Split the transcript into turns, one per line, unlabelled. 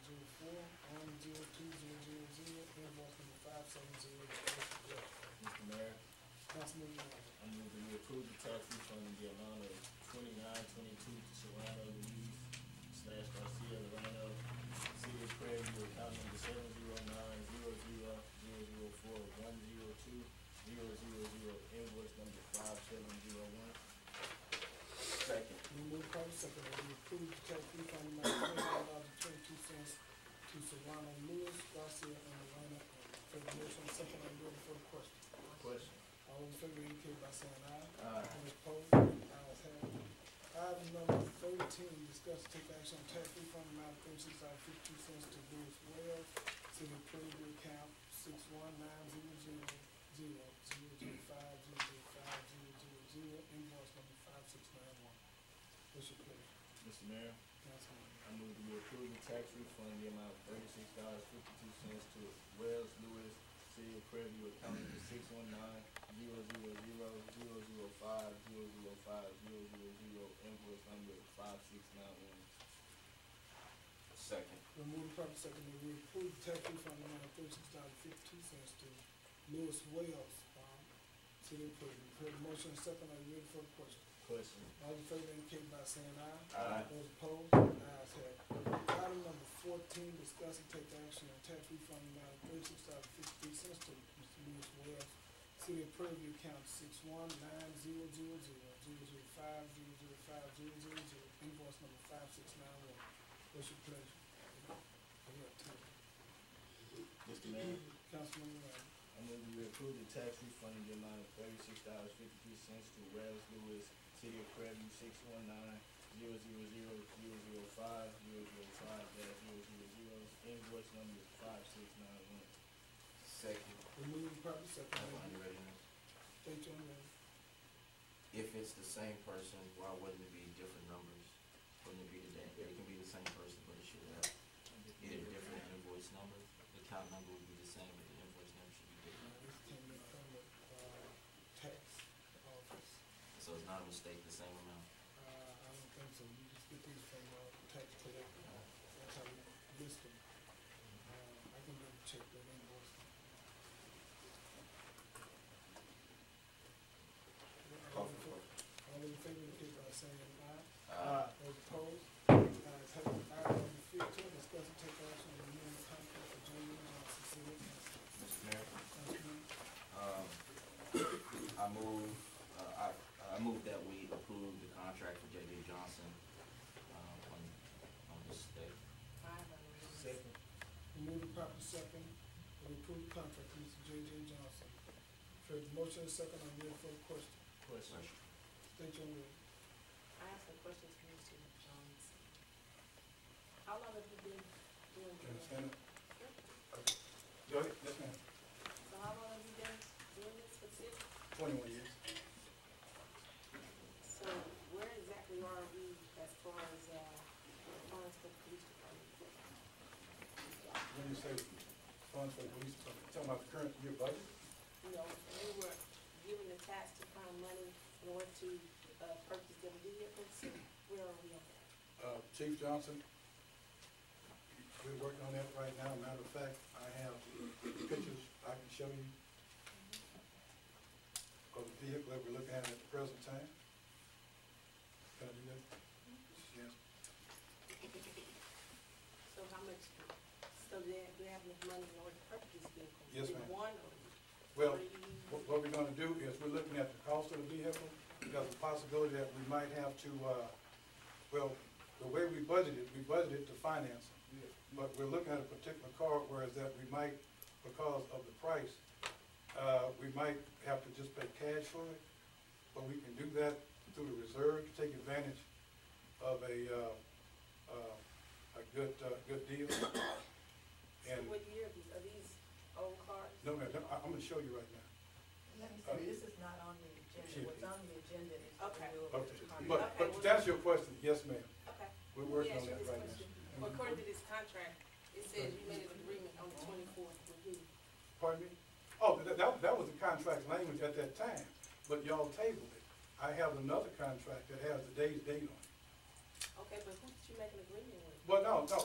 zero, one zero two zero zero zero, invoice number five seven zero.
Mr. Mayor,
Councilman Yawns.
I move that we approve the tax refund in the amount of twenty-nine twenty-two to Serrano Luis slash Garcia Lorano, City of Prairie, View, account number seven zero nine zero zero zero zero four one zero two zero zero zero, invoice number five seven zero one. Second.
We move properly second that we approve the tax refund amount of twenty-one dollars twenty-two cents to Solano Lewis, Garcia, and Alana. For the motion, second, I'm ready for the question.
Question.
All in favor, indicate by saying aye.
Aye.
Any opposed? Ayes have it. Item number thirteen, discuss and take action on tax refund amount of thirty-six dollars fifty cents to Louis Wells, city approval account six one nine zero zero zero zero zero five zero zero five zero zero zero, invoice number five six nine one. What's your pleasure,
Mr. Mayor,
Councilman?
I move that we approve the tax refund in the amount of thirty-six dollars fifty-two cents to Wells Lewis, City of Prairie View, account number six one nine zero zero zero zero zero five zero zero five zero zero zero, invoice number five six nine one. Second.
We move the property second that we approve the tax refund amount of thirty-six dollars fifty-two cents to Louis Wells, um, city approval. Heard the motion, second, are you ready for the question?
Question.
All in favor indicate by saying aye.
Aye.
Those opposed, ayes have it. Item number fourteen, discuss and take action on tax refund amount of thirty-six dollars fifty-three cents to Mr. Lewis Wells, City of Prairie View, account six one nine zero zero zero zero zero five zero zero five zero zero zero, invoice number five six nine one. What's your pleasure? I got two.
Mr. Mayor,
Councilman Ray.
I move that we approve the tax refund in the amount of thirty-six dollars fifty-two cents to Wells Lewis, City of Prairie View, six one nine zero zero zero zero zero five zero zero five dash zero zero zero, invoice number five six nine one.
Second,
We move the property
I
second.
find it ready now.
State your name.
If it's the same person, why wouldn't it be different numbers? Wouldn't it be the, da- it can be the same person, but it should have either different invoice number, the account number would be the same, but the invoice number should be different.
This came from the, uh, tax office.
So it's not a mistake, the same amount.
Uh, I don't think so, you just get these from, uh, tax collector, that's how you list them. Uh, I can go check that invoice. All in fa- all in favor, indicate by saying aye.
Uh,
Those opposed, Uh, ayes have it. Item number fifteen, discuss and take action on renewing contract for Jamie Johnson, City Council.
Mr. Mayor?
Councilman,
Um, I move, uh, I, I move that we approve the contract for J.D. Johnson, um, on, on this day.
Second.
Move the property second, and approve the contract with Mr. J.J. Johnson. Heard the motion, second, I'm ready for the question.
Question.
State your name.
I asked a question to Mr. Jones. How long have you been doing this?
Go ahead, yes ma'am,
So how long have you been doing this for city?
twenty-one years.
So where exactly are we as far as, uh, funds for the police department?
When you say funds for the police, talking about the current year budget?
You know, we were given the task to find money in order to, uh, purchase them vehicles, so where are we on that?
Uh, Chief Johnson, we're working on that right now. Matter of fact, I have pictures I can show you of the vehicle that we're looking at at the present time. Can I do that? Yes.
So how much, so they, they have enough money in order to purchase these vehicles?
Yes,
Do
ma'am.
One or?
Well,
three?
What, what we're gonna do is we're looking at the cost of the vehicle, because the possibility that we might have to, uh, well, the way we budgeted, we budgeted to finance it. But we're looking at a particular car, whereas that we might, because of the price, uh, we might have to just pay cash for it. But we can do that through the reserve, to take advantage of a, uh, uh, a good, uh, good deal.
So
And,
what year are these, are these old cars?
no, ma'am, I, I'm gonna show you right now.
Let me see, this is not on the agenda, what's on the agenda is the
Okay.
renewal of
Okay,
the contract.
but, but to answer your question, yes, ma'am,
Okay. Let
we're
me
working on
ask you
that
this
right
question.
now. Mm-hmm.
According to this contract, it says you made an agreement on the twenty-fourth with who?
Pardon me? Oh, that, that, that was the contract language at that time, but y'all tabled it. I have another contract that has the day's date on it.
Okay, but who did you make an agreement with?
Well, no, no,